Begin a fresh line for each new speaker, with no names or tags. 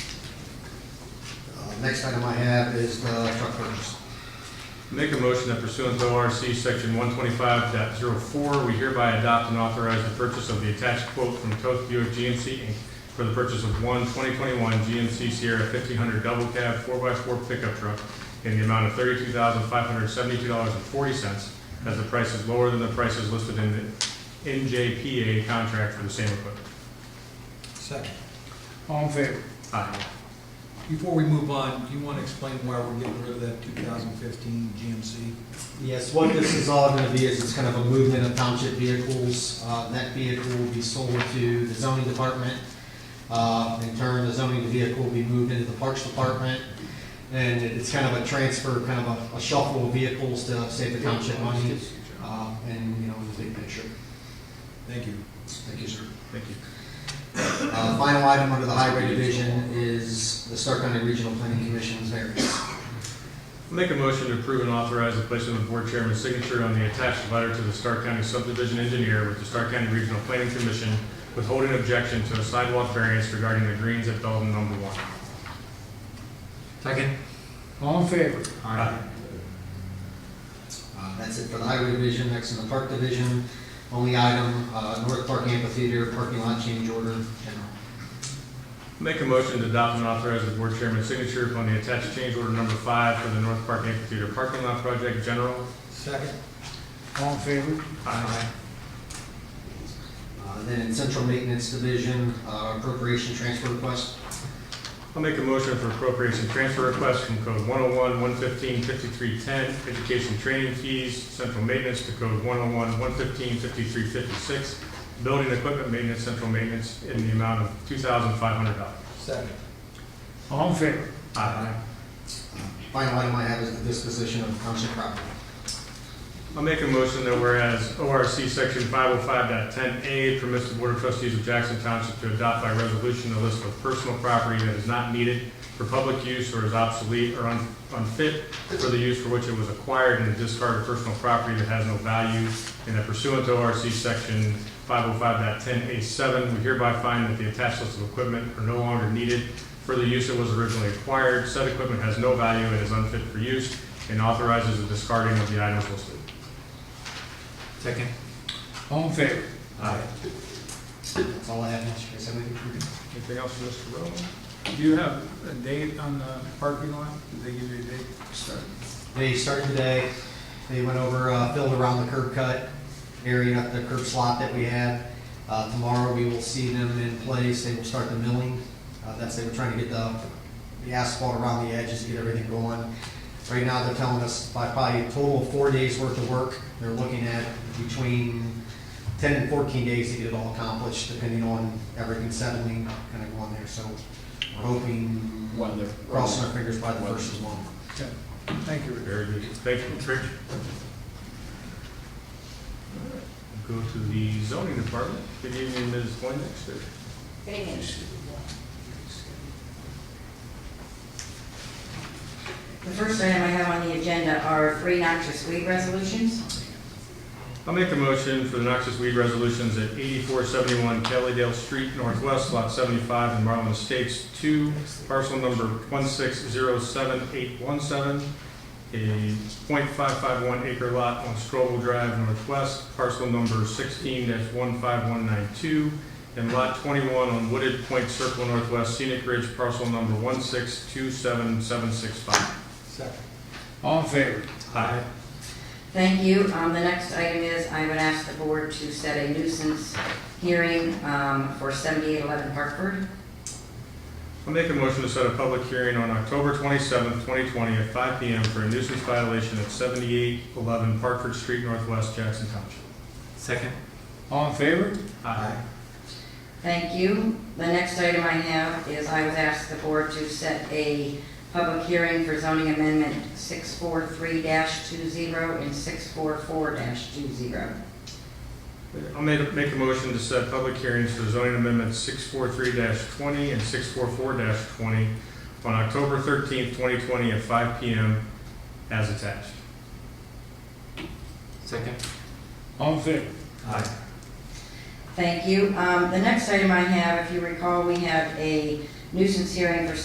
Uh, Next item I have is the truck purchase.
Make a motion that pursuant to ORC Section 125.04, we hereby adopt and authorize the purchase of the attached quote from Toth Buick GMC Inc. for the purchase of one 2021 GMC Sierra 1500 double cab 4x4 pickup truck in the amount of $32,572.40, as the price is lower than the prices listed in the NJPA contract for the same equipment.
Second.
All in favor?
Aye.
Before we move on, do you want to explain why we're getting rid of that 2015 GMC?
Yes, what this is all going to be is it's kind of a movement of township vehicles. Uh, That vehicle will be sold to the zoning department. Uh, In turn, the zoning vehicle will be moved into the parks department. And it's kind of a transfer, kind of a- a shuffle of vehicles to save the township money uh, and, you know, the big picture.
Thank you.
Thank you, sir.
Thank you.
Uh, Final item under the highway division is the Stark County Regional Planning Commission's variance.
Make a motion to approve and authorize the placement of the board chairman's signature on the attached letter to the Stark County subdivision engineer with the Stark County Regional Planning Commission withholding objection to a sidewalk variance regarding the greens at Belden number one.
Second. All in favor?
Uh, That's it for the highway division, next in the park division. Only item, uh, North Park Amphitheater, parking lot change order, general.
Make a motion to adopt and authorize the board chairman's signature upon the attached change order number five for the North Park Amphitheater parking lot project general.
Second.
All in favor?
Uh, Then in central maintenance division, uh, appropriation transfer request.
I'll make a motion for appropriation transfer request from code 101, 115, 5310, education training fees, central maintenance to code 101, 115, 5356, building equipment maintenance, central maintenance in the amount of $2,500.
Second.
All in favor?
Aye.
Final item I have is the disposition of township property.
I'll make a motion that whereas ORC Section 505.10A permits the Board of Trustees of Jackson Township to adopt by resolution a list of personal property that is not needed for public use or is obsolete or un- unfit for the use for which it was acquired and to discard personal property that has no value, and that pursuant to ORC Section 505.10A7, we hereby find that the attached list of equipment are no longer needed for the use it was originally acquired. Said equipment has no value and is unfit for use, and authorizes the discarding of the items listed.
Second. All in favor?
Aye.
That's all I have, Mr. Chris. Anything for you?
Anything else for Mr. Rowe?
Do you have a date on the parking lot? Did they give you a date?
They started today, they went over, uh, filled around the curb cut area, the curb slot that we had. Uh, Tomorrow, we will see them in place, they will start the milling, Uh, that's, they were trying to get the the asphalt around the edges, get everything going. Right now, they're telling us by probably a total of four days worth of work, they're looking at between 10 and 14 days to get it all accomplished, depending on everything settling, kind of going there, so we're hoping,
Weather.
crossing our fingers by the first of the month.
Okay. Thank you, Rick.
Very good. Thank you, Trish. Go to the zoning department. Good evening, Ms. Voynix.
Good evening. The first item I have on the agenda are three noxious weed resolutions.
I'll make a motion for the noxious weed resolutions at 8471 Kellydale Street Northwest, Lot 75 in Marlin Estates 2, parcel number 1607817, a .551 acre lot on Strobel Drive Northwest, parcel number 16-15192, and Lot 21 on Wooded Point Circle Northwest Scenic Ridge, parcel number 1627765.
Second.
All in favor?
Aye.
Thank you. Um, The next item is I would ask the board to set a nuisance hearing um, for 7811 Hartford.
I'll make a motion to set a public hearing on October twenty-seventh, twenty twenty, at five P M for a nuisance violation at seventy-eight eleven Parkford Street Northwest, Jackson Township.
Second.
All in favor?
Aye.
Thank you. The next item I have is I would ask the board to set a public hearing for zoning amendment 643-20 and 644-20.
I'll make, make a motion to set public hearings for zoning amendments six four three twenty and six four four twenty on October thirteenth, twenty twenty, at five P M as attached.
Second.
All in favor?
Aye.
Thank you. Um, The next item I have, if you recall, we have a nuisance hearing for